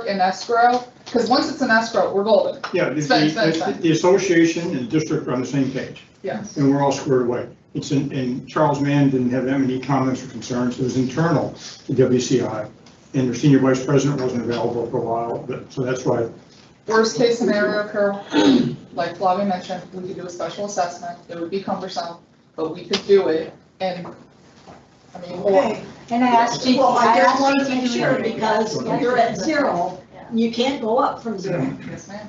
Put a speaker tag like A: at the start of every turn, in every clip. A: in escrow, because once it's in escrow, we're golden,
B: Yeah, the,
A: Spend, spend,
B: the,
A: spend.
B: the association and the district are on the same page,
A: yes.
B: and we're all squared away. It's in, and Charles Mann didn't have that many comments or concerns, it was internal to WCI, and their senior vice president wasn't available for a while, but, so that's why,
A: Worst case scenario, Carol, like Flavia mentioned, we could do a special assessment, it would be cumbersome, but we could do it, and, I mean, or,
C: Okay,
D: And I asked you,
C: well,
D: I
C: I just wanted
D: asked
C: to
D: you
C: make
D: to
C: sure
D: do it.
C: because
B: Yeah.
C: you're at zero, you can't go up from zero,
A: yes, ma'am.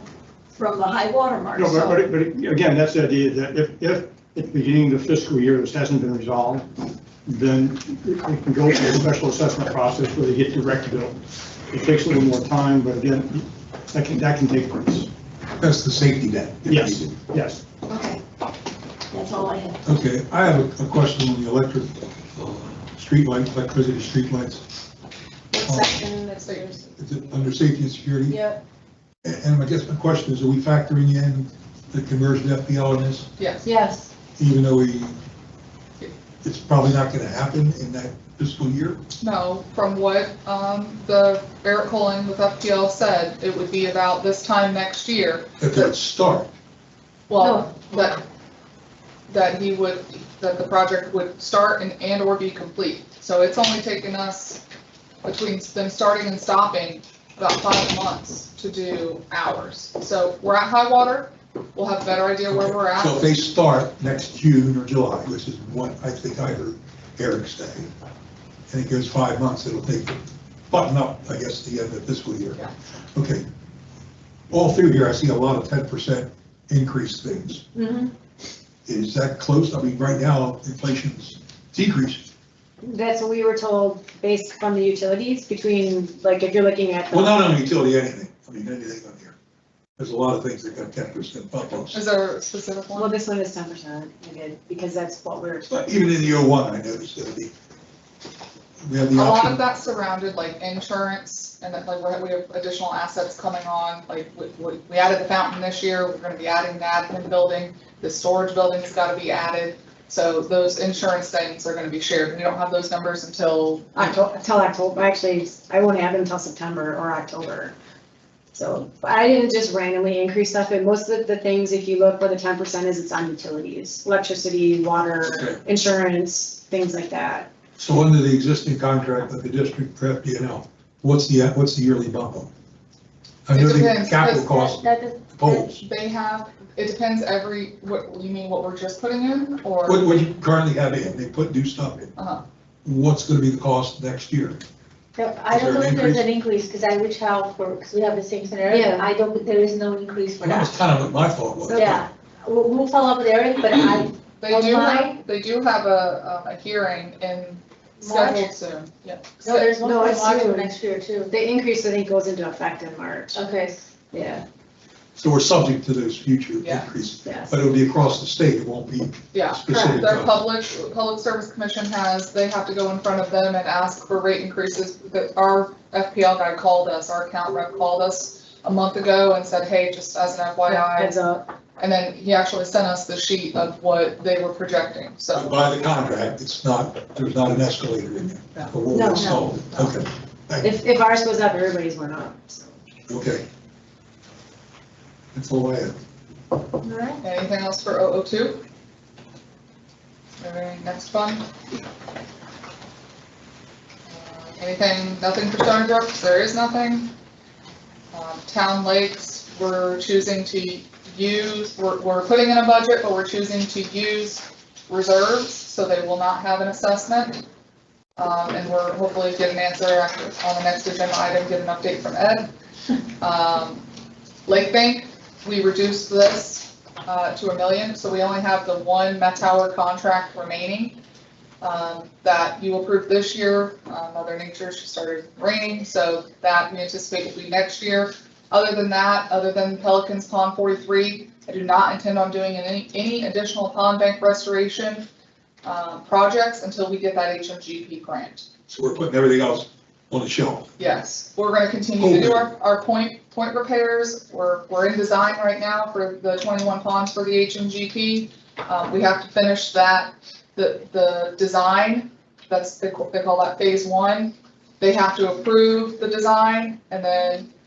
C: from the high water mark,
B: no, but,
C: so.
B: but, but again, that's the idea, that if, if at the beginning of the fiscal year, this hasn't been resolved, then it it can go through a special assessment process where they get direct bill. It takes a little more time, but again, that can, that can take place,
E: That's the safety net.
B: Yes. yes.
C: Okay. That's all I have.
E: Okay, I have a- a question on the electric, uh, streetlight, electricity streetlights.
F: What section is yours?
E: Is it under safety and security?
F: Yep,
E: A- And I guess my question is, are we factoring in the conversion FPL in this,
A: yes,
F: yes,
E: even though we, it's probably not going to happen in that fiscal year?
A: no, from what, um, the Eric Colin with FPL said, it would be about this time next year,
E: That they'd start?
A: well, that, that he would, that the project would start and, and/or be complete. So it's only taken us, between them starting and stopping, about five months to do ours. So we're at high water, we'll have a better idea where we're
E: So if
A: at.
E: they start next June or July, which is what I think I heard Eric say, and it goes five months, it'll take, button up, I guess, the end of fiscal year.
A: Yeah.
E: Okay. All through here, I see a lot of ten percent increase things.
G: Mm-hmm.
C: Mhm.
E: Is that close? I mean, right now, inflation's decreased.
G: That's what we were told based from the utilities between, like, if you're looking at. the-
E: Well, not on utility, anything. I mean, anything on here. There's a lot of things that got ten percent bump ups.
A: Is there a specific
G: Well,
A: one?
G: this one is ten percent, because that's what we're,
E: But Even in the O one, I noticed that the, we have
A: A
E: the
A: lot of
E: option.
A: that surrounded like insurance and that like we're- we have additional assets coming on, like we- we, we added the fountain this year, we're gonna be adding the admin building, the storage building's gotta be added. So those insurance things are gonna be shared. We don't have those numbers until
G: Octo- until October, actually, I won't have it until September or October. So, but I didn't just randomly increase stuff, and most of the things, if you look where the ten percent is, it's on utilities, electricity,
E: Okay.
G: water, insurance, things like that.
E: So under the existing contract with the district for FDNL, what's the, what's the yearly bump up? I know
A: It
E: the
A: depends,
E: capital
A: because-
E: cost
F: that does,
E: totals.
A: they have, it depends every, what, you mean what we're just putting in
E: What,
A: or?
E: what you currently have in, they put new stuff in.
A: Uh-huh.
E: What's gonna be the cost next year?
F: no, I
E: Is there
F: don't know
E: an
F: if there's an increase, because I reached out for, because we have the same scenario,
G: Yeah.
F: I don't, there is no increase for
E: Well, that was
F: that.
E: kind of what my thought was.
F: Yeah, we'll, we'll follow up with Eric, but I,
A: They do, have
F: Online?
A: they do have a, um, a hearing in
F: March.
A: scheduled soon, yep.
F: no, there's one
G: No,
F: for
G: it's
F: March
G: soon.
F: of next year too.
G: The increase, I think, goes into effect in March,
F: Okay,
G: yeah,
E: So we're subject to those future
A: Yeah.
E: increases,
G: yes.
E: but it'll be across the state, it won't be
A: Yeah.
E: specific.
A: Their
E: to-
A: public, Public Service Commission has, they have to go in front of them and ask for rate increases. That Our FPL guy called us, our account rep called us a month ago and said, hey, just as an FYI.
G: Heads up,
A: And then he actually sent us the sheet of what they were projecting, so.
E: By the contract, it's not, there's not an escalator in
A: No.
E: there. for what we
G: No, no.
E: installed. Okay, thank you.
G: if, if ours goes up, everybody's went up, so.
E: okay. That's all I have.
F: all right,
A: Anything else for 002? All right, next fund? Uh, Anything, nothing for Stony Brook, there is nothing. Um, Town lakes, we're choosing to use, we're, we're putting in a budget, but we're choosing to use reserves, so they will not have an assessment. Um, And we're hopefully get an answer after- on the next agenda item, get an update from Ed. Um, Lake Bank, we reduced this uh, to a million, so we only have the one Met Tower contract remaining um, that you approved this year. Uh, Mother Nature, she started raining, so that we anticipate will be next year. Other than that, other than Pelican's Pond 43, I do not intend on doing any, any additional pond bank restoration uh, projects until we get that HMGP grant.
E: So we're putting everything else on the shelf.
A: Yes, we're gonna continue to do our, our point, point repairs, we're, we're in design right now for the twenty-one ponds for the HMGP. Um, we have to finish that, the, the design, that's, they ca- they call that phase one. They have to approve the design and then